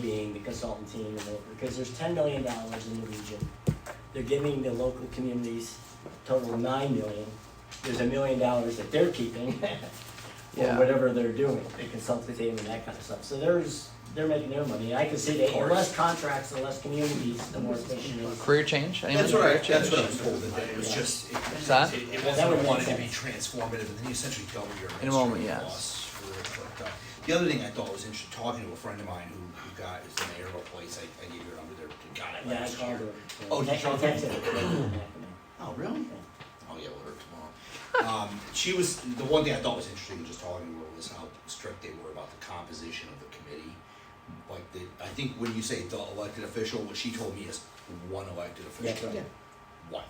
paying the consultant team, and the- because there's ten million dollars in the region. They're giving the local communities total nine million. There's a million dollars that they're keeping for Yeah. whatever they're doing, the consultant team and that kind of stuff. So there's, they're making their money. I can see that the course. less contracts, the less communities, the more efficient it is. Career change? Anyone That's do what I, career that's what I change? was told today, it was just, it, What's that? it- it That would wasn't make wanted to be sense. transformative, and then you essentially double your In a moment, administrative yes. costs for it, but, uh, The other thing I thought was interesting, talking to a friend of mine who, who got, is the mayor of a place, I, I gave you a number there, got it Yeah, I last year. called her. Oh, did you call her? I texted her. Oh, really? Oh, yeah, we'll hear tomorrow. Um, she was, the one thing I thought was interesting, just talking to her, was how strict they were about the composition of the committee. Like, the, I think when you say the elected official, what she told me is one elected That's official. right. One.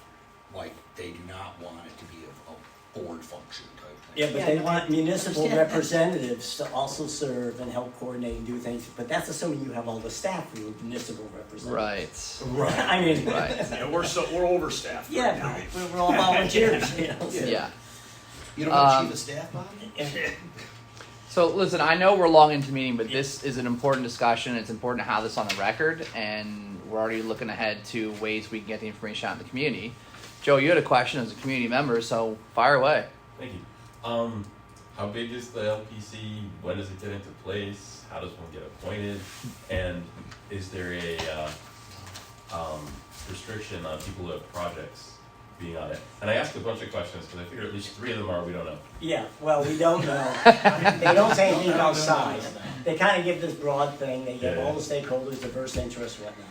Like, they do not want it to be a, a board function type thing. Yeah, but they want municipal Understand that. representatives to also serve and help coordinate and do things, but that's assuming you have all the staff for your municipal representatives. Right, Right. I mean, right. Yeah, we're so, we're overstaffed. right now. yeah, but we're, we're all volunteers, you know, so- Yeah. You don't want Um, chief of staff body? So listen, I know we're long into meeting, but this is an important discussion. It's important to have this on the record, and we're already looking ahead to ways we can get the information out in the community. Joe, you had a question as a community member, so fire away. Thank you. Um, how big is the LPC? When does it get into place? How does one get appointed? And is there a, uh, um, restriction on people who have projects being on it? And I asked a bunch of questions, because I figure at least three of them are, we don't know. Yeah, well, we don't know. They don't say anything about size. They kind of give this broad thing, they give all the stakeholders diverse interests, whatnot.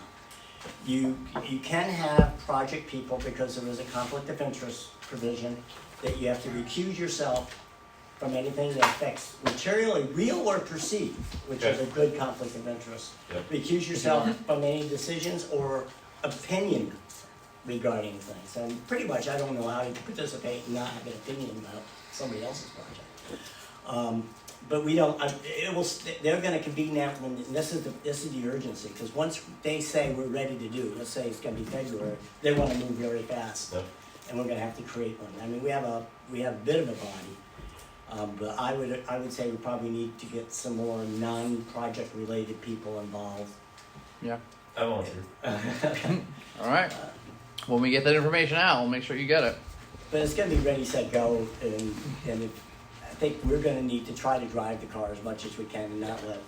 You, you can have project people because there is a conflict of interest provision that you have to recuse yourself from anything that affects materially real or perceived, which is a good conflict of interest. Yep. Recuse yourself from any decisions or opinion regarding things. And pretty much, I don't know how you can participate and not have an opinion about somebody else's project. Um, but we don't, I- it will, st- they're gonna convene that when, and this is the, this is the urgency, because once they say we're ready to do, let's say it's gonna be February, they wanna move very fast. Yep. And we're gonna have to create one. I mean, we have a, we have a bit of a body. Um, but I would, I would say we probably need to get some more non-project related people involved. Yeah. I volunteer. All right. When we get that information out, we'll make sure you get it. But it's gonna be ready, set, go, and, and if, I think we're gonna need to try to drive the car as much as we can and not let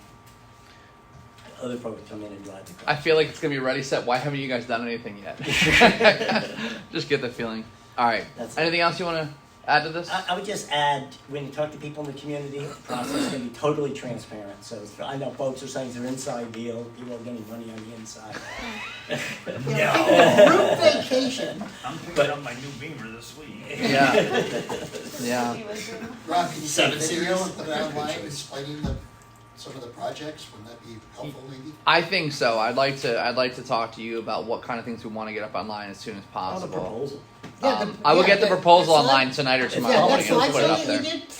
other folks come in and drive the I car. feel like it's gonna be ready set. Why haven't you guys done anything yet? Just get the feeling. All right. That's- Anything else you want to add to this? I, I would just add, when you talk to people in the community, the process is gonna be totally transparent, so I know folks are saying it's an inside deal, people are getting money on the inside. Yeah, Group vacation. I'm picking up my new Beamer this week. yeah. Yeah. Rob, can you get a Seven video series. and put it online explaining the, some of the projects? Wouldn't that be helpful maybe? I think so. I'd like to. I'd like to talk to you about what kind of things we want to get up online as soon On as the possible. proposal. Oh, Yeah, Um, the- I will yeah, get the that- proposal that slide- online tonight or tomorrow. Yeah, morning that and put it slideshow up that you there. did,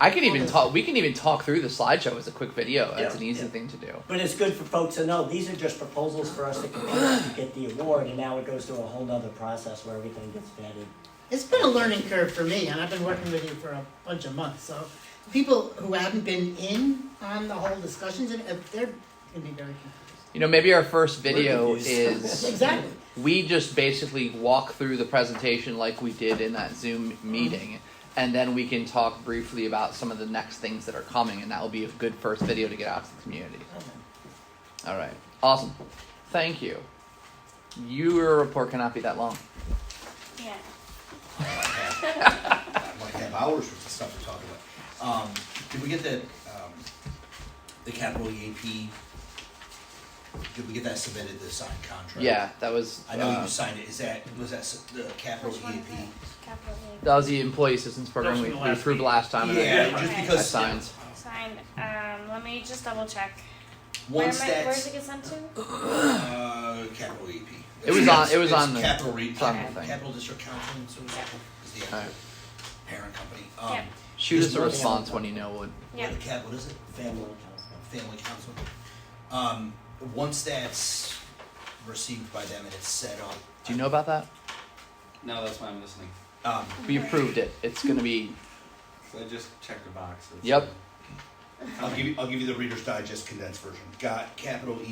I can even talk. We can even talk through the slideshow as a quick video. That's Yeah, an easy yeah. thing to do. But it's good for folks to know, these are just proposals for us to compare to get the award, and now it goes through a whole nother process where everything gets vetted. it's been a learning curve for me, and I've been working with you for a bunch of months, so people who haven't been in on the whole discussions, and if they're gonna be very confused. You know, maybe our first video confused. is Exactly, we just basically walk through the presentation like we did in that Zoom meeting, and then we can talk briefly about some of the next things that are coming, and that will be a good first video to get out to the community. All right, awesome. Thank you. Your report cannot be that long. Yeah. I might have hours worth of stuff to talk about. Um, did we get the, um, the capital EAP? Did we get that submitted, the signed contract? Yeah, that was. I know uh, you signed it, is that, was that s- the capital E Which one is EAP? it? Capital E A. that was the employee assistance program That was we, from the we last approved meeting. last time. and I- Yeah, Okay. just I because signed. Signed. Um, let me just double check. once Where am I, where's that's it get sent to? uh, capital EP. It was on- it was It's E on the- capital re- it's on the thing. Capital District Council and so Yeah. is the Alright. parent company. Yeah. Um, Shoot us a There's nothing response when you know what. Yeah. the cap, what is it? Family Family, council. family council. Um, once that's received by them and it's set up. Do you know about that? No, that's why I'm listening. Um, We approved it. It's gonna be. I just checked the box. It's- Yep. I'll give you, I'll give you the Reader's Digest condensed version. Got capital E